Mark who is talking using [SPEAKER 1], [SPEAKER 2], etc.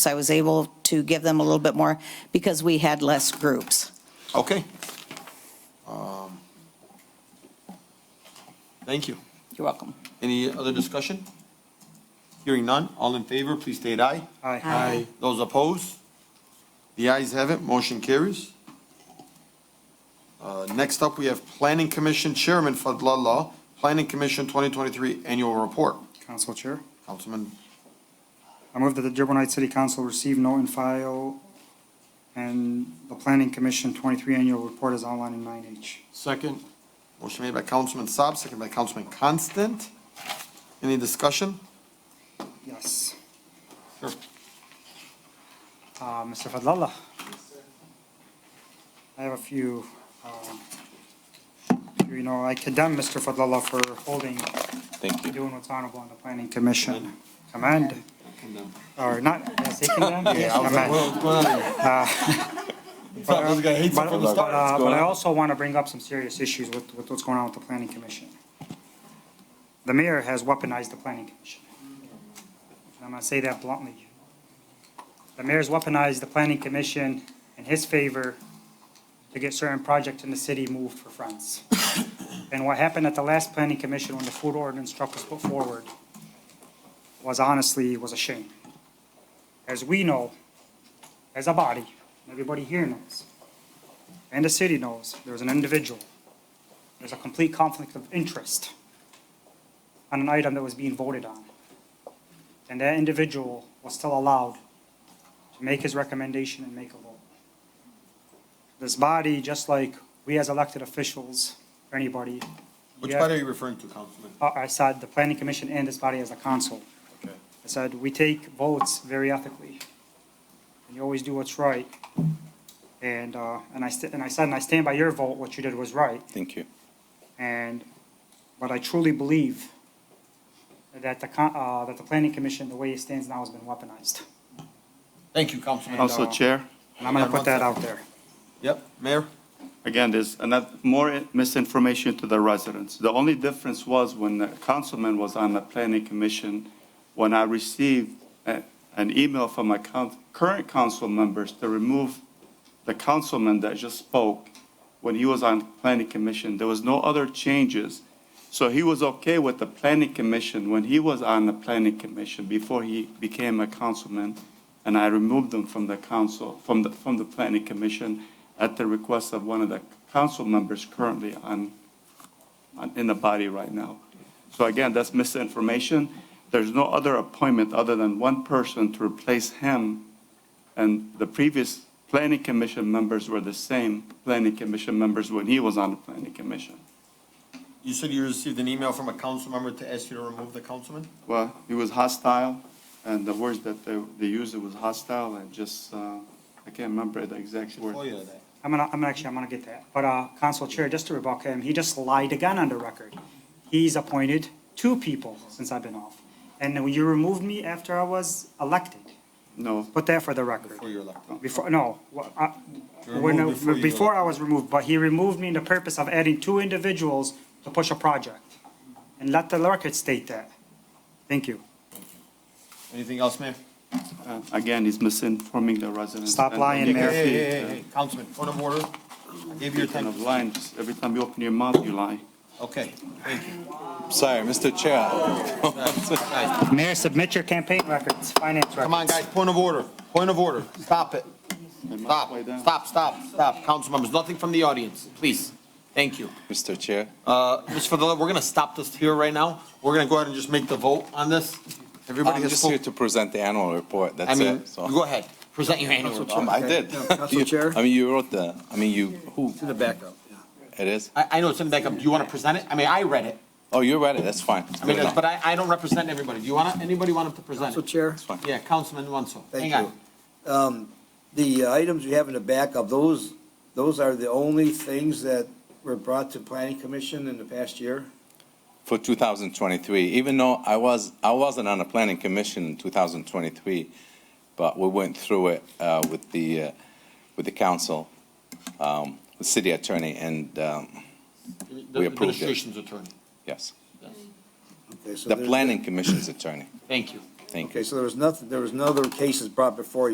[SPEAKER 1] So I was able to give them a little bit more because we had less groups.
[SPEAKER 2] Okay. Um, Thank you.
[SPEAKER 1] You're welcome.
[SPEAKER 2] Any other discussion? Hearing none, all in favor, please state aye.
[SPEAKER 1] Aye.
[SPEAKER 2] Those opposed? The ayes have it, motion carries. Uh, Next up, we have Planning Commission Chairman Fadlallah, Planning Commission 2023 Annual Report.
[SPEAKER 3] Council Chair,
[SPEAKER 2] Councilman,
[SPEAKER 3] I move that the Dearborn Heights City Council receive, note, and file, and the Planning Commission 23 Annual Report is online in 9H.
[SPEAKER 4] Second,
[SPEAKER 2] motion made by Councilman Saab, second by Councilman Constant. Any discussion?
[SPEAKER 3] Yes.
[SPEAKER 2] Sure.
[SPEAKER 3] Uh, Mr. Fadlallah? I have a few, um, you know, I condemn Mr. Fadlallah for holding,
[SPEAKER 2] Thank
[SPEAKER 3] doing what's honorable on the Planning Commission. Command, or not, yes, he condemned?
[SPEAKER 2] Yeah, I was like,
[SPEAKER 3] Command.
[SPEAKER 2] what's going on here? Thought this guy hates it
[SPEAKER 3] Uh, But,
[SPEAKER 2] from the
[SPEAKER 3] but,
[SPEAKER 2] start.
[SPEAKER 3] uh, but I also want to bring up some serious issues with, with what's going on with the planning commission. The mayor has weaponized the planning commission. And I'm gonna say that bluntly. The mayor's weaponized the planning commission in his favor to get certain projects in the city moved for funds. And what happened at the last planning commission when the food ordinance truck was put forward was honestly, was a shame. As we know, as a body, everybody here knows, and the city knows there's an individual, there's a complete conflict of interest on an item that was being voted on. And that individual was still allowed to make his recommendation and make a vote. This body, just like we as elected officials, or anybody.
[SPEAKER 2] Which
[SPEAKER 3] yeah,
[SPEAKER 2] part are you referring to, Councilman?
[SPEAKER 3] uh, I said the planning commission and this body as a council.
[SPEAKER 2] Okay.
[SPEAKER 3] I said, we take votes very ethically, and you always do what's right. And, uh, and I, st- and I said, and I stand by your vote, what you did was right.
[SPEAKER 5] Thank you.
[SPEAKER 3] And, but I truly believe that the, con- uh, that the planning commission, the way it stands now, has been weaponized.
[SPEAKER 2] Thank you, Councilman.
[SPEAKER 3] And,
[SPEAKER 5] Council
[SPEAKER 3] uh,
[SPEAKER 5] Chair,
[SPEAKER 3] And I'm gonna put that out there.
[SPEAKER 2] Yep, Mayor?
[SPEAKER 5] again, there's another, more misinformation to the residents. The only difference was when the councilman was on the planning commission, when I received a- an email from my coun- current council members to remove the councilman that just spoke when he was on planning commission, there was no other changes. So he was okay with the planning commission when he was on the planning commission before he became a councilman. And I removed him from the council, from the, from the planning commission at the request of one of the council members currently on, on- in the body right now. So again, that's misinformation. There's no other appointment other than one person to replace him. And the previous planning commission members were the same planning commission members when he was on the planning commission.
[SPEAKER 2] You said you received an email from a council member to ask you to remove the councilman?
[SPEAKER 5] Well, he was hostile, and the words that they, they used was hostile and just, uh, I can't remember the exact
[SPEAKER 2] Oh,
[SPEAKER 5] word.
[SPEAKER 2] yeah, that.
[SPEAKER 3] I'm gonna, I'm actually, I'm gonna get that. But, uh, Council Chair, just to rebuke him, he just lied again on the record. He's appointed two people since I've been off. And then you removed me after I was elected.
[SPEAKER 5] No,
[SPEAKER 3] Put that for the record.
[SPEAKER 2] Before you're elected.
[SPEAKER 3] Before, no, wha- I-
[SPEAKER 2] You were
[SPEAKER 3] when,
[SPEAKER 2] removed before you-
[SPEAKER 3] before I was removed, but he removed me in the purpose of adding two individuals to push a project. And let the record state that. Thank you.
[SPEAKER 2] Anything else, Mayor?
[SPEAKER 5] uh, again, he's misinforming the residents.
[SPEAKER 3] Stop lying,
[SPEAKER 2] Hey,
[SPEAKER 3] Mayor.
[SPEAKER 2] hey, hey, hey, hey, Councilman, point of order. I gave you your
[SPEAKER 5] Kind
[SPEAKER 2] time.
[SPEAKER 5] of lying, just every time you open your mouth, you lie.
[SPEAKER 2] Okay, thank you.
[SPEAKER 4] sorry, Mr. Chair.
[SPEAKER 2] Guys,
[SPEAKER 3] Mayor, submit your campaign records, finance records.
[SPEAKER 2] Come on, guys, point of order, point of order. Stop it. Stop,
[SPEAKER 5] Way down.
[SPEAKER 2] stop, stop, stop. Council members, nothing from the audience, please. Thank you.
[SPEAKER 4] Mr. Chair,
[SPEAKER 2] Uh, just for the, we're gonna stop this here right now. We're gonna go ahead and just make the vote on this. Everybody
[SPEAKER 4] I'm
[SPEAKER 2] has
[SPEAKER 4] just here
[SPEAKER 2] spoken.
[SPEAKER 4] to present the annual report,
[SPEAKER 2] I
[SPEAKER 4] that's
[SPEAKER 2] mean,
[SPEAKER 4] it, so.
[SPEAKER 2] you go ahead, present your annual
[SPEAKER 4] Um,
[SPEAKER 2] report.
[SPEAKER 4] I did. You-
[SPEAKER 6] Chair?
[SPEAKER 4] I mean, you wrote the, I mean, you, who,
[SPEAKER 6] To the backup.
[SPEAKER 4] it is?
[SPEAKER 2] I, I know it's in the backup. Do you wanna present it? I mean, I read it.
[SPEAKER 4] Oh, you read it, that's fine.
[SPEAKER 2] I mean,
[SPEAKER 4] Good enough.
[SPEAKER 2] but I, I don't represent everybody. Do you wanna, anybody want to present
[SPEAKER 6] Council
[SPEAKER 2] it?
[SPEAKER 6] Chair,
[SPEAKER 4] It's fine.
[SPEAKER 2] Yeah, Councilman Wanso.
[SPEAKER 6] thank
[SPEAKER 2] Hang on.
[SPEAKER 6] you. Um, The items you have in the backup, those, those are the only things that were brought to planning commission in the past year?
[SPEAKER 4] For 2023, even though I was, I wasn't on the planning commission in 2023, but we went through it uh, with the, uh, with the council, um, the city attorney, and, um,
[SPEAKER 2] The
[SPEAKER 4] We approved it.
[SPEAKER 2] administration's attorney.
[SPEAKER 4] yes,
[SPEAKER 6] Okay, so
[SPEAKER 4] the
[SPEAKER 6] there's-
[SPEAKER 4] planning commission's attorney.
[SPEAKER 2] Thank you.
[SPEAKER 4] Thank you.
[SPEAKER 6] Okay, so there was nothing, there was no other cases brought before you.